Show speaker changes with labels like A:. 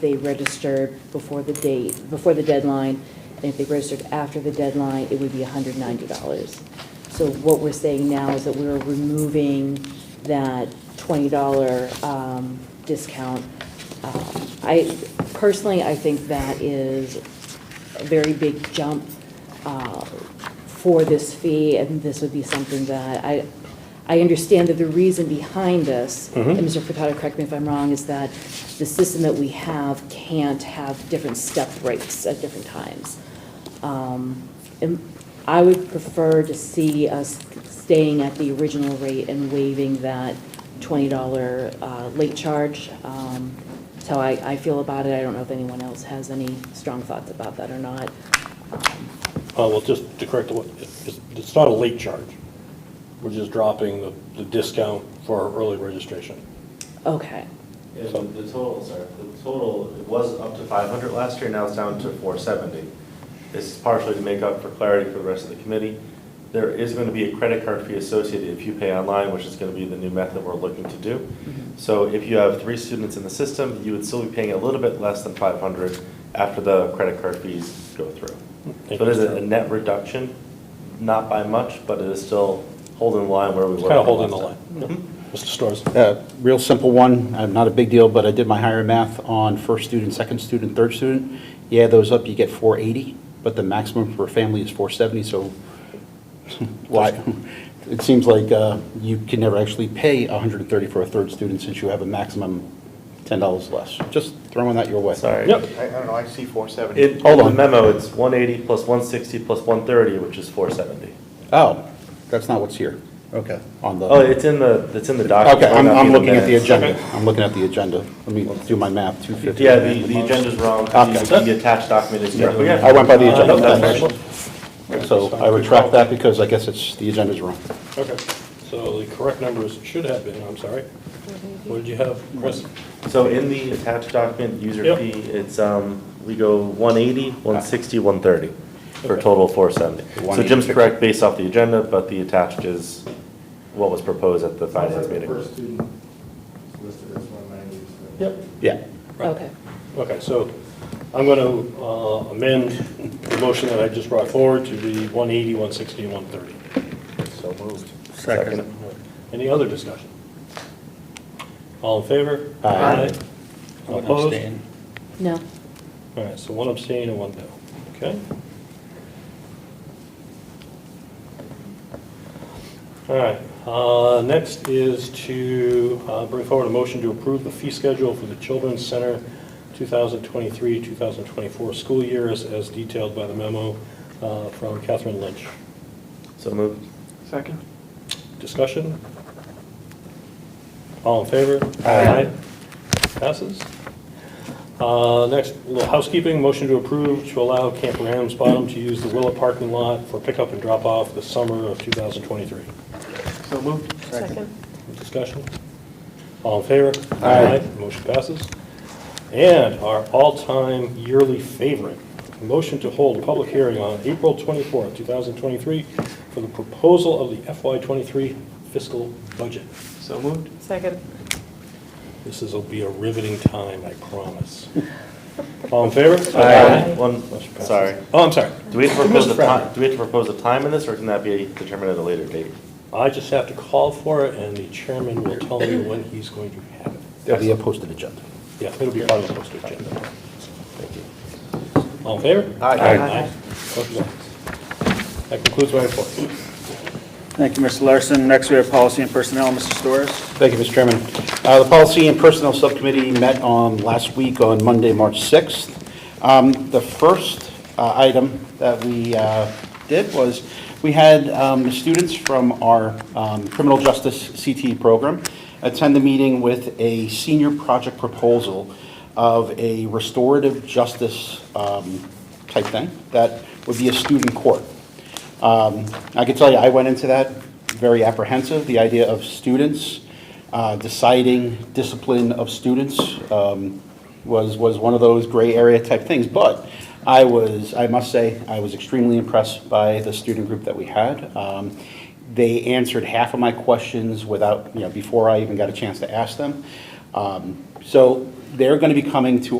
A: they registered before the date, before the deadline, and if they registered after the deadline, it would be hundred ninety dollars. So what we're saying now is that we're removing that twenty dollar, um, discount. Um, I, personally, I think that is a very big jump, uh, for this fee, and this would be something that I, I understand that the reason behind this, and Mr. Furtado, correct me if I'm wrong, is that the system that we have can't have different step rates at different times. Um, And I would prefer to see us staying at the original rate and waiving that $20 uh, late charge. Um, That's how I, I feel about it. I don't know if anyone else has any strong thoughts about that or not.
B: Uh, well, just to correct the, it's, it's not a late charge. We're just dropping the, the discount for our early registration.
A: Okay,
C: Yeah, the the totals are, the total, it was up to 500 last year, now it's down to 470. This is partially to make up for clarity for the rest of the committee. There is going to be a credit card fee associated if you pay online, which is going to be the new method we're looking to do.
B: Mm-hmm.
C: So if you have three students in the system, you would still be paying a little bit less than 500 after the credit card fees go through. So it is a a net reduction, not by much, but it is still holding the line where we were.
B: It's kind of holding the line.
C: last time.
B: Mr. Storrs?
D: Uh, Real simple one, uh, not a big deal, but I did my higher math on first student, second student, third student. Yeah, those up, you get 480, but the maximum for a family is 470, so why? It seems like uh, you can never actually pay 130 for a third student since you have a maximum $10 less. Just throwing that your way.
C: Sorry.
B: Yep.
E: I I don't know, I see 470.
C: It,
D: Hold
C: in the
D: on.
C: memo, it's one eighty plus one sixty plus one thirty, which is four seventy.
D: Oh, that's not what's here. Okay. On the.
C: Oh, it's in the, it's in the document.
D: Okay, I'm,
C: It might not be
D: I'm
C: in
D: looking at the
C: minutes.
D: agenda. I'm looking at the agenda. Let me do my math, 250.
C: Yeah, the, the agenda's wrong,
D: Okay.
C: the the attached document is.
D: Yeah, I went by the agenda.
C: Uh, that's right.
D: So I retract that because I guess it's, the agenda's wrong.
B: Okay, so the correct numbers should have been, I'm sorry. What did you have, Chris?
C: So in the attached document, user
B: Yep.
C: fee, it's, um, we go one eighty, one sixty, one thirty, for a
B: Okay.
C: total of four seventy. So
D: 180.
C: Jim's correct based off the agenda, but the attached is what was proposed at the finance meeting.
E: First student listed as 190. so-
B: Yep.
D: Yeah.
A: okay.
B: Okay, so I'm going to amend the motion that I just brought forward to be 180, 160, and 130. So moved.
C: Second.
B: Any other discussion? All in favor?
D: Aye.
B: Opposed?
A: No,
B: All right, so one abstain and one no, okay? All right, uh, next is to uh, bring forward a motion to approve the fee schedule for the Children's Center 2023-2024 school years as detailed by the memo uh, from Catherine Lynch.
C: So moved.
E: Second.
B: Discussion? All in favor?
D: Aye.
B: Passes. Uh, Next, a little housekeeping, motion to approve to allow Camp Ram's Bottom to use the Willow parking lot for pickup and drop-off this summer of 2023.
E: So moved. Second.
B: Discussion? All in favor?
D: Aye.
B: Motion passes. And our all-time yearly favorite, motion to hold a public hearing on April 24, 2023, for the proposal of the FY23 fiscal budget.
E: So moved.
F: Second.
B: This is, will be a riveting time, I promise. All in favor?
F: Aye.
C: One, sorry.
B: Oh, I'm sorry.
C: Do we have to propose a
B: Mr. Fry.
C: time, do we have to propose a time in this, or can that be determined at a later date?
B: I just have to call for it, and the chairman will tell me when he's going to have it.
D: That'll be a posted agenda.
B: Yeah, it'll be part of the posted agenda. All in favor?
E: Aye. Aye.
B: Motion passes. That concludes my report.
G: Thank you, Mr. Larson. Next, we have policy and personnel, Mr. Storrs.
D: Thank you, Mr. Chairman. Uh, The Policy and Personnel Subcommittee met on last week on Monday, March 6th. Um, The first uh, item that we uh, did was, we had um, the students from our um, criminal justice CTE program attend the meeting with a senior project proposal of a restorative justice um, type thing that would be a student court. Um, I can tell you, I went into that very apprehensive, the idea of students, uh, deciding discipline of students um, was, was one of those gray area type things. But I was, I must say, I was extremely impressed by the student group that we had. Um, They answered half of my questions without, you know, before I even got a chance to ask them. Um, So they're going to be coming to